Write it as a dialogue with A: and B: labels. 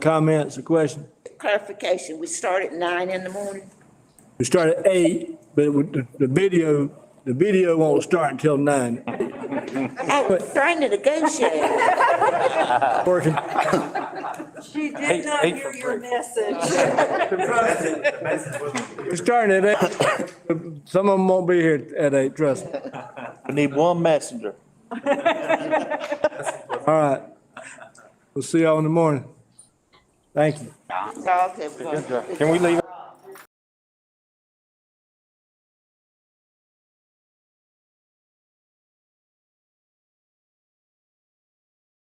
A: Comments or questions?
B: clarification, we start at nine in the morning?
A: We start at eight, but it would- the, the video, the video won't start until nine.
B: I was trying to negotiate.
A: Working,
C: She did not
D: hate
C: hear
D: for
C: your
D: break.
C: message.
A: we're starting at eight. Some of them won't be here at eight, trust me.
D: We need one messenger.
A: All right. We'll see y'all in the morning. Thank you.
B: Dogs have-
D: Can we leave?